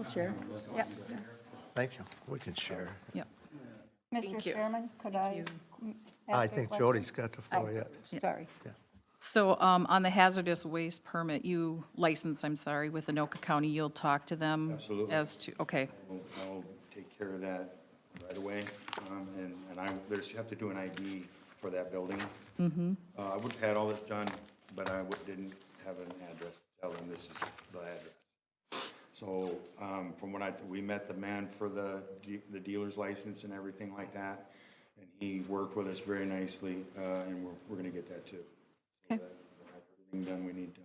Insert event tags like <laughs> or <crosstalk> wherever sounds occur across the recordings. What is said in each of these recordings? We'll share. Yep. Thank you. We can share. Yep. Mr. Chairman, could I? mm, ask I a think question? Jody's got the floor yet. I- Sorry. So um, on the hazardous waste permit, you licensed, I'm sorry, with Anoka County, you'll talk to them? Absolutely. As to, okay, I'll- I'll take care of that right away. Um, And, and I, there's, you have to do an ID for that building. Mm-hmm. I would have had all this done, but I would- didn't have an address to tell them this is the address. So um, from when I, we met the man for the, de- the dealer's license and everything like that, and he worked with us very nicely, uh, and we're, we're going to get that too. So Okay. that- we'll have Everything done we need done.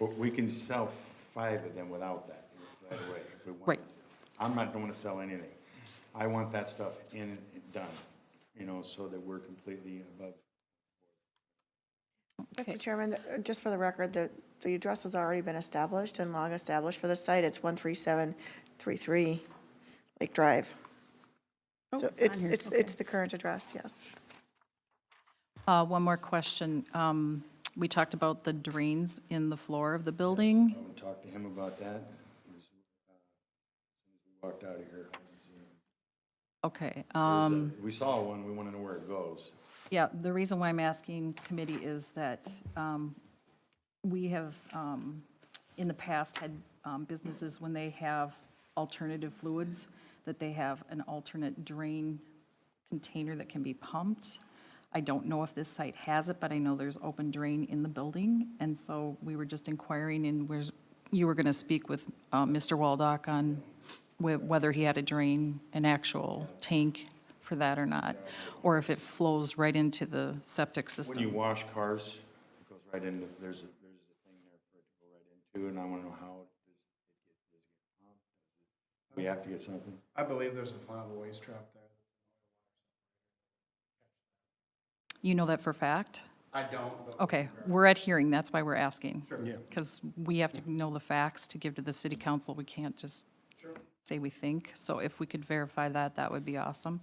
But we can sell five of them without that right away if we wanted Right. to. I'm not going to sell anything. I want that stuff in and done, you know, so that we're completely above. Okay. Mr. Chairman, th- just for the record, the, the address has already been established and long established for the site. It's 13733 Lake Drive. So it's, it's, it's the current address, yes. Uh, one more question. Um, We talked about the drains in the floor of the building. I'm going to talk to him about that. As soon as we Walked out of here. Okay, um, We saw one, we want to know where it goes. yeah, the reason why I'm asking committee is that um, we have, um, in the past, had um, businesses, when they have alternative fluids, that they have an alternate drain container that can be pumped. I don't know if this site has it, but I know there's open drain in the building, and so we were just inquiring, and where's, you were going to speak with uh, Mr. Waldock on whe- whether he had a drain, an actual tank for that or not, or if it flows right into the septic When you system. wash cars, it goes right into, there's a, there's a thing there for it to go right into, and I want to know how. it is- it gets- does it get pumped? We have to get something. I believe there's a flammable waste trap there. You know that for fact? I don't, but. Okay, we're at hearing, that's why we're asking. Yeah. Because we have to know the facts to give to the city council, we can't just say we think. So if we could verify that, that would be awesome.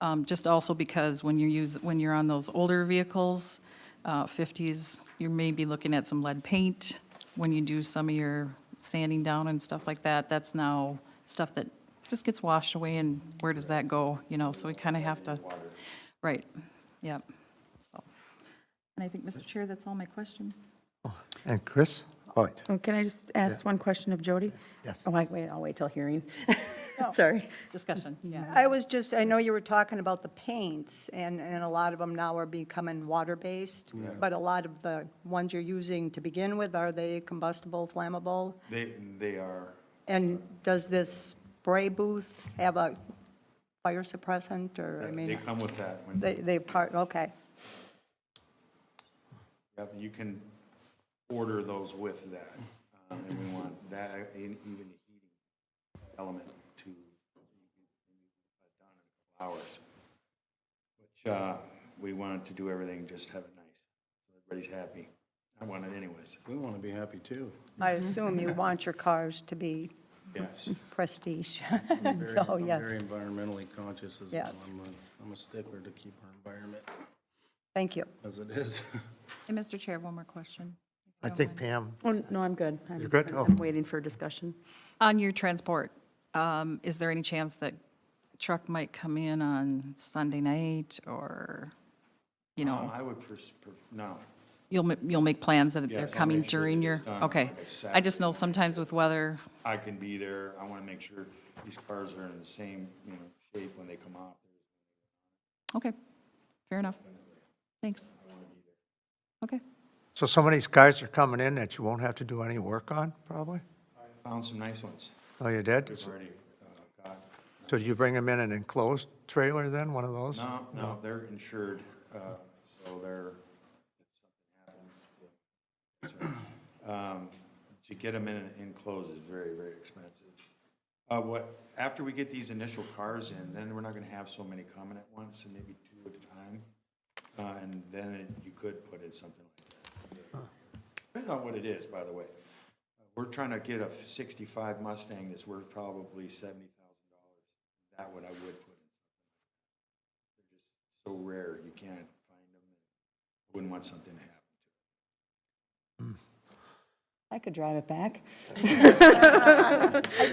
Um, Just also because when you use, when you're on those older vehicles, uh, 50s, you may be looking at some lead paint when you do some of your sanding down and stuff like that. That's now stuff that just gets washed away, and where does that go, you know? So we kind of have to, right, yep, so. And I think, Mr. Chair, that's all my questions. And Chris? All right. Oh, Can I just ask one question of Jody? Yes. Oh, I- wait, I'll wait till hearing. <laughs> Sorry. <laughs> Discussion, yeah. I was just, I know you were talking about the paints, and, and a lot of them now are becoming water-based, but a lot of the ones you're using to begin with, are they combustible, flammable? They, they are, And does this spray booth have a fire suppressant, or, I they mean, come with that. when- they, they part, okay. Yep, you can order those with that, um, and we want that, and even the heating element to, you can- done in a couple hours. Which, uh, we wanted to do everything, just have it nice, so everybody's happy. I want it anyways. We want to be happy <laughs> too. I assume you want your cars to be Yes, prestige, <laughs> Very- so, I'm Oh, yes, Very environmentally conscious as well. Yes. I'm a, I'm a stickler to keep our environment thank you. as it is. <laughs> And Mr. Chair, one more question. I think Pam, Oh, no, I'm good. I'm- You're good? I'm- Oh. I'm waiting for discussion. On your transport, um, is there any chance that truck might come in on Sunday night or, you Um, know, I would pers, per- no, you'll, ma- you'll make plans that Yes, they're I'll coming make sure that during it's your, done okay. like a I just know sometimes with weather, I can be there, I wanna make sure these cars are in the same, you know, shape when they come off. okay, fair enough. Thanks. Okay, so some of these cars are coming in that you won't have to do any work on, probably? Found some nice ones, Oh, you did? we've already, uh, got. So you bring them in an enclosed trailer then, one of those? No, no, they're insured, uh, so they're, if something happens, yeah. Um, to get them in and enclosed is very, very expensive. Uh, What, after we get these initial cars in, then we're not going to have so many coming at once, and maybe two at a time. Uh, And then it- you could put in something like that. Depends on what it is, by the way. We're trying to get a 65 Mustang that's worth probably $70,000. That would I would put in so rare, you can't find them. Wouldn't want something to happen. I could drive it back.